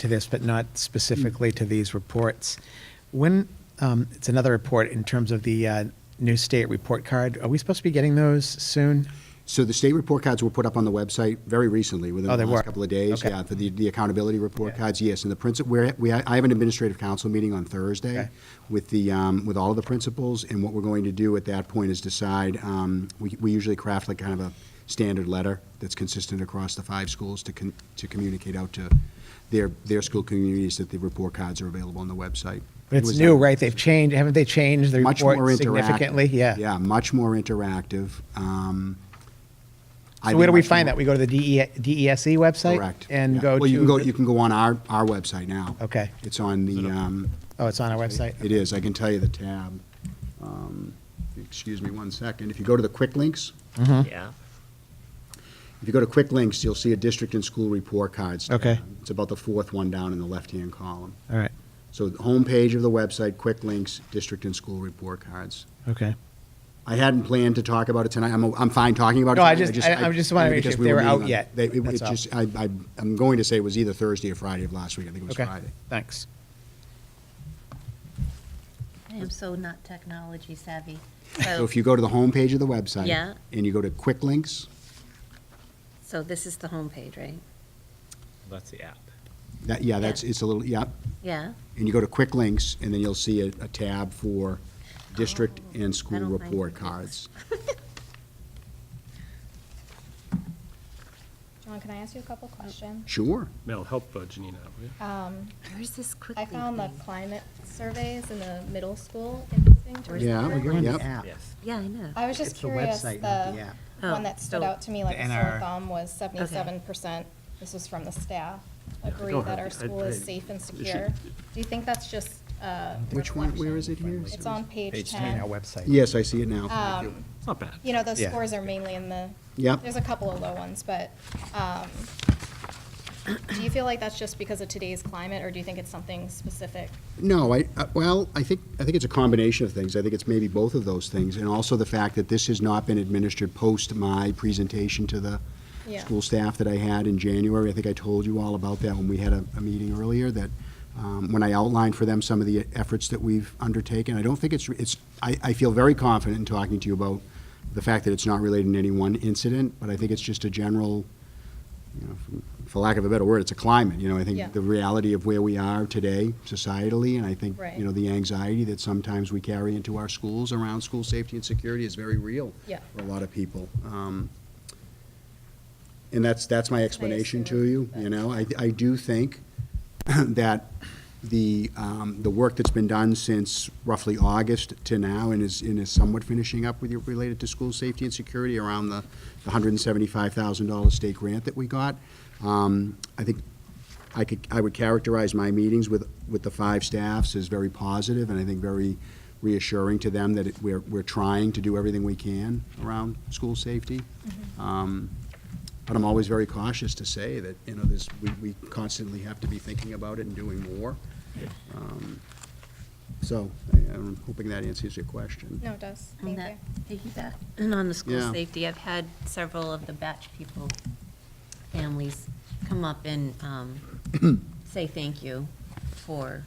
to this, but not Mm. specifically to these reports. When, um, it's another report in terms of the uh, new state report card. Are we supposed to be getting those soon? So the state report cards were put up on the website very recently, within Oh, they the were? last couple of days. Okay. Yeah, for the, the accountability report Yeah. cards, yes. And the principal, we're, we, I have an administrative council meeting on Okay. Thursday with the, um, with all of the principals. And what we're going to do at that point is decide, um, we, we usually craft like kind of a standard letter that's consistent across the five schools to con, to communicate out to their, their school communities that the report cards are available on the website. But It it's was new, done- right? They've changed, haven't they changed the much more report interactive. significantly? Yeah. Yeah, much more interactive. Um, I So where do think we much find more- that? We go to the E, DE DESE website? Correct. And Yeah. go to? Well, you can go, you can go on our, our website now. Okay. It's on the, um, Oh, it's on our website? it is, I can tell you the tab. Um, Excuse me one second. If you go to the quick links, Yeah. if you go to quick links, you'll see a district and school report cards. tab. Okay. It's about the fourth one down in the left-hand column. All right, So the homepage of the website, quick links, district and school report cards. okay. I hadn't planned to talk about it tonight. I'm, I'm fine talking about it. No, I tonight. just- I- I just wanted to make because sure if we they were were meeting out on- yet. They, it- it That's all. just, I, I, I'm going to say it was either Thursday or Friday of last week. I think it was Okay. Friday. Thanks. I am so not technology savvy. So So, if you go to the homepage of the website. Oh. Yeah. And you go to quick links, so this is the homepage, right? That's the app. that, yeah, that's, it's a little, yeah. Yeah, And you go to quick links and then you'll see a, a tab for district Oh, and I school don't like report it. cards. John, can I ask you a couple questions? Sure. Mel, help uh, Janina, out, will you? Um, where's this quickly? I found the climate surveys in the middle school interesting. to Where's Yeah, consider. we go- on the yep. app. Yes. Yeah, I know. I was just It's the curious, website, not the the app. Oh, one that stood so out to me like the a sore NR. thumb was seventy-seven percent, this was from the staff, Yeah, I agree don't have that our the- I- school is I- safe and should- secure. Do you think that's just, uh, Which one, where is it here? it's on page It's on our ten? website. Yes, I see it now. Um, It's not bad. you know, those Yeah. scores are mainly in the, Yep. there's a couple of low ones, but, um, do you feel like that's just because of today's climate, or do you think it's something specific? No, I, uh, well, I think, I think it's a combination of things. I think it's maybe both of those things, and also the fact that this has not been administered post my presentation to the Yeah. school staff that I had in January. I think I told you all about that when we had a, a meeting earlier, that um, when I outlined for them some of the efforts that we've undertaken, I don't think it's, it's, I, I feel very confident in talking to you about the fact that it's not related to any one incident, but I think it's just a general, you know, for- for lack of a better word, it's a climate, you know, I Yeah. think the reality of where we are today societally, and I think, Right. you know, the anxiety that sometimes we carry into our schools around school safety and security is very real Yeah. for a lot of people. Um, And that's, that's my explanation to you, you know, I, I do think that the, um, the work that's been done since roughly August to now and is, and is somewhat finishing up with you related to school safety and security around the the $175,000 state grant that we got. Um, I think I could, I would characterize my meetings with, with the five staffs as very positive and I think very reassuring to them that it- we're, we're trying to do everything we can around school safety. Mm-hmm. Um, but I'm always very cautious to say that, you know, this, we, we constantly have to be thinking about it and doing more. Um, So I- I'm hoping that answers your question. No, it does, On thank that you. piggyback, and on the school Yeah. safety, I've had several of the batch people, families, come up and um, say thank you for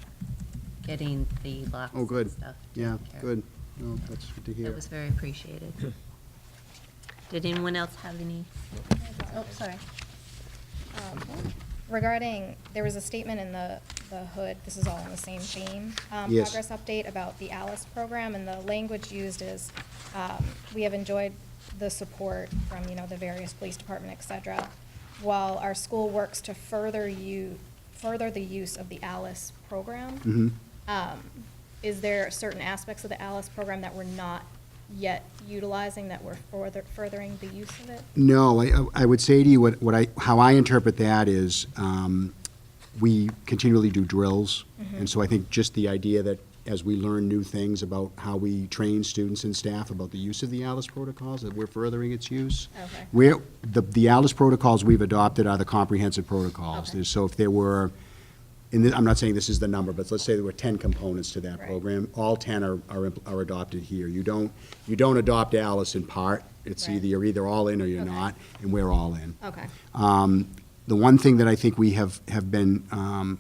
getting the locks Oh, good. and stuff. Yeah, taken care of. good. No, that's good to hear. That was very appreciated. Did anyone else have any? Oh, sorry. Um, Regarding, there was a statement in the, the hood, this is all in the same theme. um, Yes. Progress update about the Alice program, and the language used is, um, we have enjoyed the support from, you know, the various police department, et cetera, while our school works to further you, further the use of the Alice program. Mhm. Um, Is there certain aspects of the Alice program that we're not yet utilizing, that we're further- furthering the use of it? No, I- I, I would say to you, what, what I, how I interpret that is, um, we continually do drills. Mm-hmm. And so I think just the idea that as we learn new things about how we train students and staff about the use of the ALIS protocols, that we're furthering its use. Okay. We're, the, the ALIS protocols we've adopted are the comprehensive protocols. Okay. There's- So if there were, and thi- I'm not saying this is the number, but let's say there were 10 components to that Right. program. All 10 are, are impl- are adopted here. You don't, you don't adopt ALIS in part. It's Right. either, you're either all in or you're Okay. not, and we're all in. Okay. Um, The one thing that I think we have, have been um,